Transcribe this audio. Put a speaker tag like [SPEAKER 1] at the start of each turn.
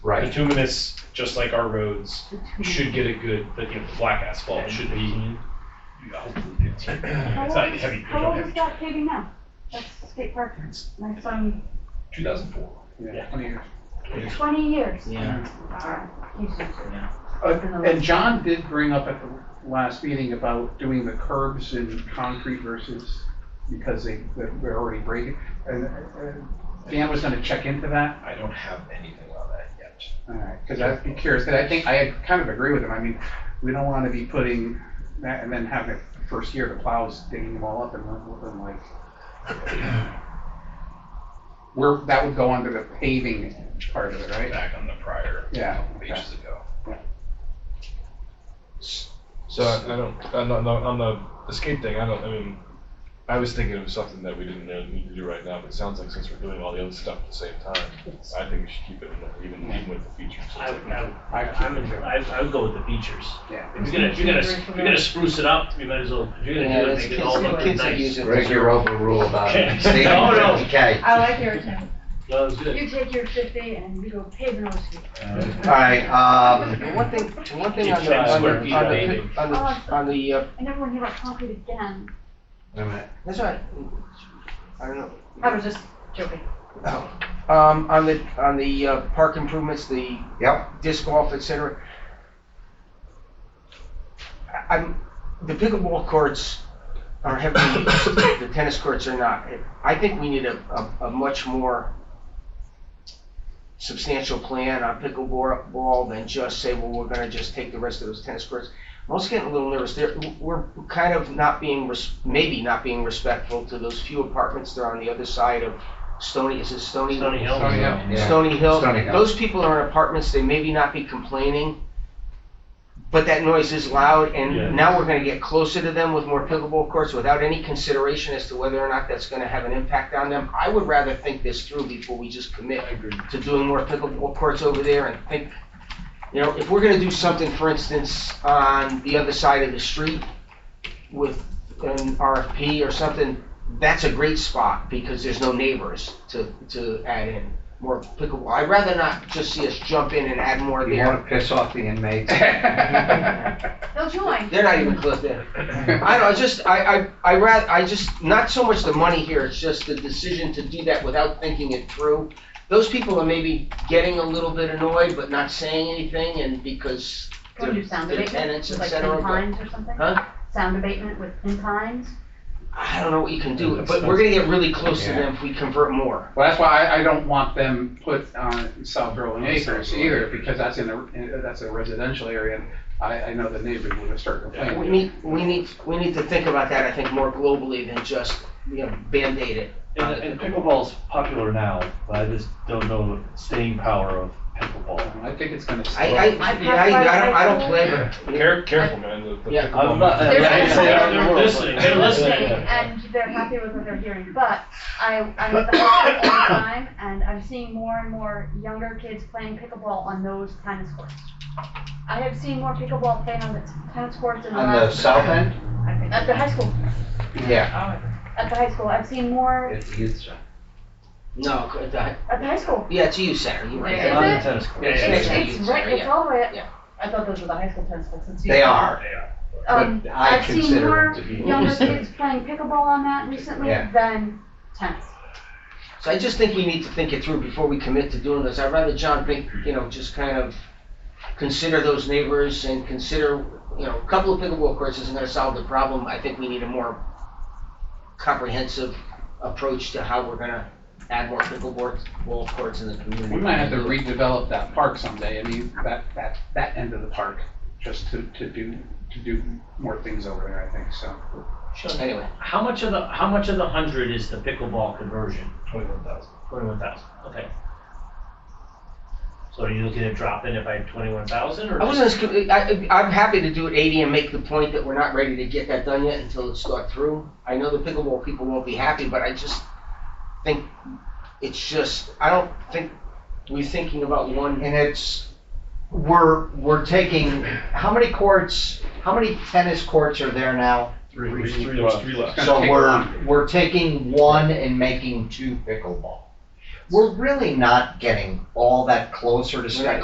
[SPEAKER 1] bituminous, just like our roads,
[SPEAKER 2] Mm-hmm.
[SPEAKER 1] should get a good, the, you know, the black asphalt should be, hopefully, it's
[SPEAKER 2] How
[SPEAKER 1] it's
[SPEAKER 2] old
[SPEAKER 1] not
[SPEAKER 2] is-
[SPEAKER 1] heavy, there's
[SPEAKER 2] How
[SPEAKER 1] no
[SPEAKER 2] old is
[SPEAKER 1] heavy.
[SPEAKER 2] that paving now? That's state record. My son,
[SPEAKER 1] Two thousand four.
[SPEAKER 3] Yeah.
[SPEAKER 2] twenty years.
[SPEAKER 4] Yeah.
[SPEAKER 2] Wow. Jesus.
[SPEAKER 3] Uh, And John did bring up at the last meeting about doing the curbs in concrete versus, because they, they're already breaking. And uh, Dan was gonna check into that.
[SPEAKER 5] I don't have anything on that yet.
[SPEAKER 3] Because I'd be curious, because I think, I kind of agree with him, I mean, we don't want to be putting that, and then have the first year the plows digging them all up and looking like. We're, that would go under the paving part of it, right?
[SPEAKER 5] Back on the prior
[SPEAKER 3] Yeah,
[SPEAKER 5] couple
[SPEAKER 3] okay.
[SPEAKER 5] pages ago.
[SPEAKER 6] So I I don't, on the, on the- on the escape thing, I don't, I mean, I was thinking of something that we didn't really need to do right now, but it sounds like since we're doing all the other stuff at the same time, I think we should keep it in there, even, even with the features.
[SPEAKER 4] I, I,
[SPEAKER 3] I
[SPEAKER 4] I'm in- I, I would go with the features.
[SPEAKER 3] Yeah.
[SPEAKER 4] If you're gonna, if you're gonna, if you're gonna spruce it up, you might as well, if you're gonna do it, make it all look
[SPEAKER 7] kids that use
[SPEAKER 4] nice.
[SPEAKER 7] it.
[SPEAKER 5] Greg, you're overruled on
[SPEAKER 4] Okay.
[SPEAKER 5] stating
[SPEAKER 4] No, no.
[SPEAKER 5] 50K.
[SPEAKER 2] I like your attempt.
[SPEAKER 4] No, it's good.
[SPEAKER 2] You take your fifty and you go paving on the street.
[SPEAKER 5] All right, um,
[SPEAKER 7] One thing, one thing
[SPEAKER 4] Keep
[SPEAKER 7] on the,
[SPEAKER 4] ten
[SPEAKER 7] on
[SPEAKER 4] square
[SPEAKER 7] the,
[SPEAKER 4] feet
[SPEAKER 7] on
[SPEAKER 4] of
[SPEAKER 7] the,
[SPEAKER 4] paving.
[SPEAKER 7] on the, on the, uh,
[SPEAKER 2] I never want to hear about concrete again.
[SPEAKER 5] wait a minute.
[SPEAKER 7] that's right. I don't know.
[SPEAKER 2] I was just joking.
[SPEAKER 7] Um, on the, on the uh, park improvements, the
[SPEAKER 5] Yep.
[SPEAKER 7] disc golf, et cetera. I- I'm, the pickleball courts are heavily used, the tennis courts are not. I think we need a, a, a much more substantial plan on pickleball ball than just say, well, we're gonna just take the rest of those tennis courts. I'm also getting a little nervous, there, we're kind of not being, res- maybe not being respectful to those few apartments that are on the other side of Stony, is it Stony?
[SPEAKER 4] Stony Hill.
[SPEAKER 3] Stony Hill.
[SPEAKER 5] Yeah.
[SPEAKER 7] Stony Hill.
[SPEAKER 5] Stony Hill.
[SPEAKER 7] Those people are in apartments, they maybe not be complaining, but that noise is loud,
[SPEAKER 4] Yeah.
[SPEAKER 7] and now we're gonna get closer to them with more pickleball courts without any consideration as to whether or not that's gonna have an impact on them. I would rather think this through before we just commit
[SPEAKER 4] agree.
[SPEAKER 7] to doing more pickleball courts over there and think, you know, if we're gonna do something, for instance, on the other side of the street with an RFP or something, that's a great spot because there's no neighbors to, to add in more pickleball. I'd rather not just see us jump in and add more
[SPEAKER 5] You
[SPEAKER 7] there.
[SPEAKER 5] want to piss off the inmates?
[SPEAKER 2] They'll join.
[SPEAKER 7] They're not even close there. I don't, I just, I, I, I rather, I just, not so much the money here, it's just the decision to do that without thinking it through. Those people are maybe getting a little bit annoyed, but not saying anything, and because
[SPEAKER 2] Go do sound
[SPEAKER 7] The
[SPEAKER 2] abatement
[SPEAKER 7] tenants,
[SPEAKER 2] with
[SPEAKER 7] et
[SPEAKER 2] like
[SPEAKER 7] cetera,
[SPEAKER 2] pin
[SPEAKER 7] but-
[SPEAKER 2] pines or something?
[SPEAKER 7] Huh?
[SPEAKER 2] Sound abatement with pin pines?
[SPEAKER 7] I don't know what you can
[SPEAKER 1] Yeah,
[SPEAKER 7] do,
[SPEAKER 1] that's-
[SPEAKER 7] but we're gonna get really close to
[SPEAKER 5] Yeah.
[SPEAKER 7] them if we convert more.
[SPEAKER 3] Well, that's why I, I don't want them put on South Berlin Acres either, because that's in a, in- that's a residential area, and I, I know the neighbors would start
[SPEAKER 7] We
[SPEAKER 3] complaining.
[SPEAKER 7] need, we need, we need to think about that, I think, more globally than just, you know, Band-Aid it.
[SPEAKER 8] And, and pickleball's popular now, but I just don't know the staying power of pickleball.
[SPEAKER 3] I think it's gonna.
[SPEAKER 7] I, I,
[SPEAKER 2] I-
[SPEAKER 7] yeah, I, I don't, I don't play, but.
[SPEAKER 6] Care, careful, man, the, the
[SPEAKER 7] Yeah.
[SPEAKER 6] pickleball.
[SPEAKER 8] I'm not- uh,
[SPEAKER 6] Yeah,
[SPEAKER 2] There's-
[SPEAKER 6] yeah,
[SPEAKER 4] They're
[SPEAKER 6] yeah.
[SPEAKER 4] they're listening, they're
[SPEAKER 2] They're listening
[SPEAKER 4] listening.
[SPEAKER 2] and they're happy with what they're hearing, but I, I'm at the hospital all the time and I'm seeing more and more younger kids playing pickleball on those tennis courts. I have seen more pickleball played on the tennis courts in the
[SPEAKER 5] On the
[SPEAKER 2] last,
[SPEAKER 5] south end?
[SPEAKER 2] at the high school,
[SPEAKER 5] Yeah.
[SPEAKER 2] at the high school, I've seen more,
[SPEAKER 5] It's youth center.
[SPEAKER 7] No, 'cause I-
[SPEAKER 2] at the high school.
[SPEAKER 7] yeah, it's you, Sarah, you're right. Um,
[SPEAKER 2] Is
[SPEAKER 8] On the
[SPEAKER 2] it?
[SPEAKER 8] tennis court.
[SPEAKER 4] Yeah,
[SPEAKER 2] It's,
[SPEAKER 7] yeah,
[SPEAKER 2] it's
[SPEAKER 7] yeah.
[SPEAKER 2] right, it's all the way up.
[SPEAKER 7] Yeah.
[SPEAKER 2] I thought those were the high school tennis courts. since you-
[SPEAKER 5] They are,
[SPEAKER 2] Um,
[SPEAKER 5] but I
[SPEAKER 2] I've seen
[SPEAKER 5] consider
[SPEAKER 2] more
[SPEAKER 5] them to be.
[SPEAKER 2] younger kids playing pickleball on that recently
[SPEAKER 5] Yeah.
[SPEAKER 2] than tennis.
[SPEAKER 7] So I just think we need to think it through before we commit to doing this. I'd rather John think, you know, just kind of consider those neighbors and consider, you know, a couple of pickleball courts isn't gonna solve the problem. I think we need a more comprehensive approach to how we're gonna add more pickleball ball courts in the community.
[SPEAKER 3] We might have to redevelop that park someday, I mean, that, that, that end of the park, just to, to do, to do more things over there, I think, so.
[SPEAKER 4] Sean,
[SPEAKER 7] Anyway,
[SPEAKER 4] How much of the, how much of the hundred is the pickleball conversion?
[SPEAKER 1] Twenty-one thousand.
[SPEAKER 4] Twenty-one thousand, okay. So are you looking to drop in it by twenty-one thousand or?
[SPEAKER 7] I wasn't, as con- I, I- I'm happy to do it eighty and make the point that we're not ready to get that done yet until it's thought through. I know the pickleball people won't be happy, but I just think it's just, I don't think we're thinking about one.
[SPEAKER 5] And it's, we're, we're taking, how many courts, how many tennis courts are there now?
[SPEAKER 1] Three,
[SPEAKER 6] Three- three
[SPEAKER 1] there's
[SPEAKER 6] left.
[SPEAKER 1] three left.
[SPEAKER 3] Gonna
[SPEAKER 5] So
[SPEAKER 3] take a
[SPEAKER 5] we're,
[SPEAKER 3] lot.
[SPEAKER 5] we're taking one and making two pickleball. We're really not getting all that closer to
[SPEAKER 7] We're not
[SPEAKER 5] state